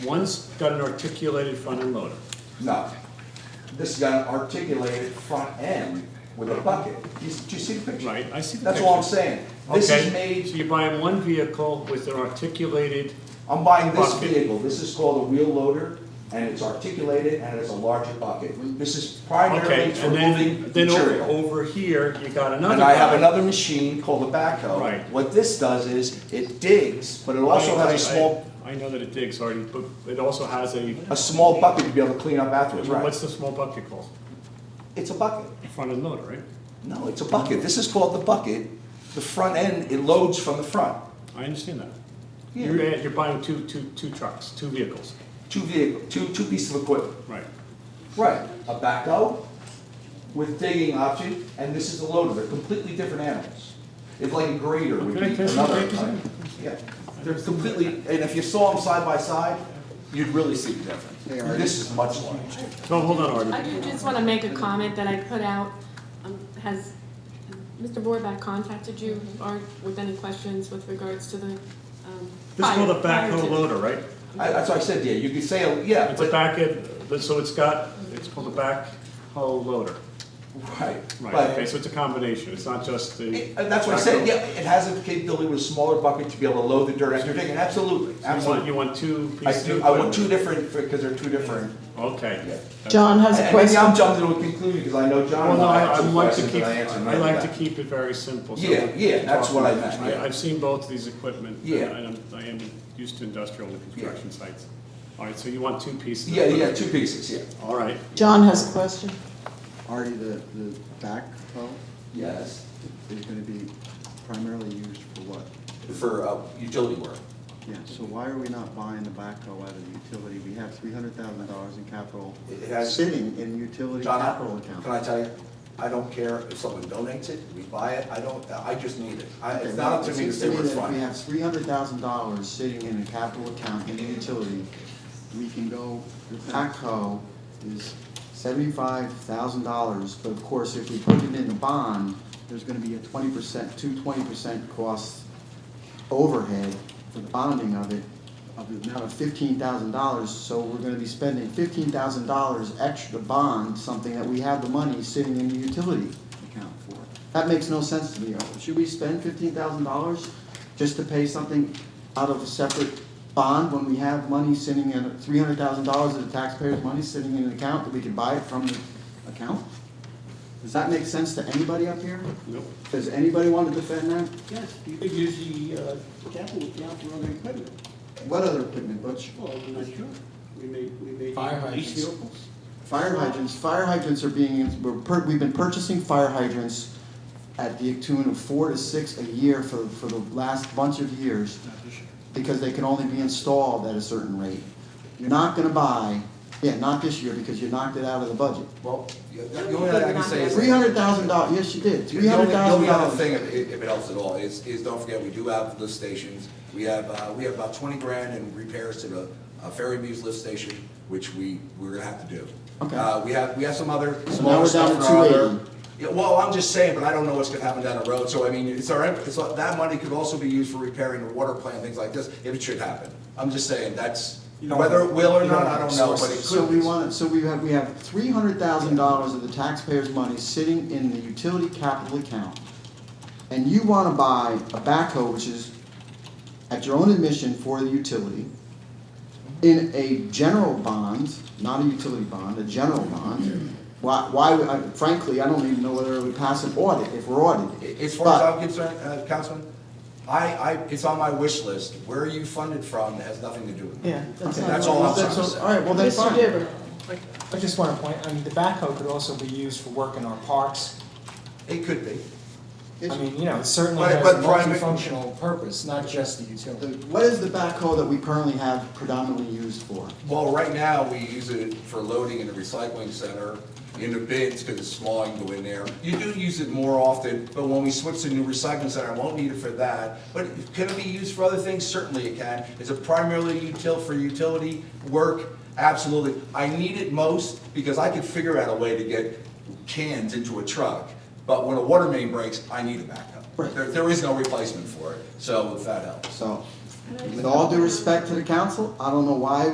One's got an articulated front end loader. No. This got an articulated front end with a bucket. Do you, do you see the picture? Right, I see the That's all I'm picture. saying. This is Okay, So made, you're buying one vehicle with an articulated, I'm buying this Bucket. vehicle, this is called a wheel loader, and it's articulated and it's a larger bucket. This is primarily okay, for and moving then, then over, material. over here, you got another. And I have guy. another machine called a backhoe. Right. What this does is, it digs, but it also I- has I- a small, I know that it digs already, but it also has a, a small bucket to be able to clean up afterwards, right? what's the small bucket called? It's a bucket. A Front end loader, right? No, it's a bucket. This is called the bucket. The front end, it loads from the front. I understand that. Yeah. You're, eh, you're buying two, two, two trucks, two vehicles. Two vehicle, two, two pieces of equipment. Right. Right. A backhoe with digging option, and this is a loader. They're completely different animals. It's like a grader would Okay, be can I see another the pictures? type. Yeah, they're completely, and if you saw them side by side, you'd really see the difference. This is much larger. No, hold on, I Artie. do just want to make a comment that I put out. Um, Has Mr. Borback contacted you or with any questions with regards to the um, This is fire- called a fire backhoe to- loader, right? I- That's what I said, yeah, you could say, oh, yeah, It's a but, back end, but- so it's got, it's called a backhoe loader. right, Right, but okay, so it's a combination, it's not just the. It- And that's what I said, yeah, it has a capability with a smaller bucket to be able to load the dirt after digging, absolutely, You want, absolutely. you want two I pieces? do, of I want two equipment. different, because they're two different. Yeah. Okay. John has a And maybe I'm question. jumping to a conclusion, because I know John Well, and no, I I, I have some like to questions keep, that I answered. I like to keep it very simple. so Yeah, we're yeah, that's talking what I about- meant, yeah. I, have seen both of these equipment. and- Yeah. And I'm, I am used to industrial and Yeah. construction sites. All right, so you want two pieces? of Yeah, yeah, equipment. two pieces, yeah, All right, John has a question. Artie, the, the backhoe yes, is gonna be primarily used for what? for uh, utility work. Yeah, so why are we not buying the backhoe out of the utility? We have three hundred thousand dollars in capital It has- sitting in utility John, capital I- can account. I tell you, I don't care if someone donates it, we buy it, I don't, I just need it. I- Okay, It's not up to it me to seems say where it's that if We from. have three hundred thousand dollars sitting in a capital account in a utility. We can go, the backhoe is seventy-five thousand dollars, but of course, if we put it in the bond, there's gonna be a twenty percent, two twenty percent cost overhead for the bonding of it, of the amount of fifteen thousand dollars, so we're gonna be spending fifteen thousand dollars extra to bond something that we have the money sitting in the utility account for. That makes no sense to me, should we spend fifteen thousand dollars just to pay something out of a separate bond when we have money sitting in, three hundred thousand dollars of the taxpayers' money sitting in an account that we could buy it from the account? Does that make sense to anybody up here? nope. Does anybody want to defend that? Yes, you could use the uh, capital account for other equipment. What other equipment, Butch? Well, I'm not sure. We may, we may. Fire Police hydrants. vehicles? Fire hydrants, fire hydrants are being, we're, pur- we've been purchasing fire hydrants at the tune of four to six a year for, for the last bunch of years, because they can only be installed at a certain rate. You're not gonna buy, yeah, not this year, because you knocked it out of the budget. Well, the the only thing I can say is. Three hundred thousand dollars, yes, you did, The three only- hundred The thousand only other dollars. thing, if, if it helps at all, is, is don't forget, we do have lift stations. We have, uh, we have about twenty grand in repairs to the uh, Ferry Muse lift station, which we, we're gonna have to do. Okay. Uh, we have, we have some other we're smaller down stuff to for our other. 280. Yeah, well, I'm just saying, but I don't know what's gonna happen down the road, so I mean, it's all right, it's, all- that money could also be used for repairing the water plant, things like this, if it should happen. I'm just saying, that's, whether it will or not, I don't know, but it could. So we want, so we have, we have three hundred thousand dollars of the taxpayers' money sitting in the utility capital account. And you wanna buy a backhoe, which is at your own admission for the utility, in a general bond, not a utility bond, a general bond. Why, why, would- I- frankly, I don't even know whether it would pass an audit, if we're audited. As far as But- I'm concerned, uh, Councilman, I, I, it's on my wish list. Where you funded from has nothing to do with it. Yeah, that's Okay, not- That's all I'm trying That's to all- say. All right, well, then Mr. fine. Dibber, I just want to point, I mean, the backhoe could also be used for work in our parks. It could be. I mean, you know, it certainly But- has but a private- multifunctional purpose, not just the utility. The- What is the backhoe that we currently have predominantly used for? Well, right now, we use it for loading in the recycling center, in the bins, because it's small, you can go in there. You do use it more often, but when we switch to new recycling center, I won't need it for that. But can it be used for other things? Certainly it can. Is it primarily util, for utility work? Absolutely. I need it most because I could figure out a way to get cans into a truck, but when a water main breaks, I need a backup. Right. There, there is no replacement for it, so if that helps. So, with all due respect to the council, I don't know why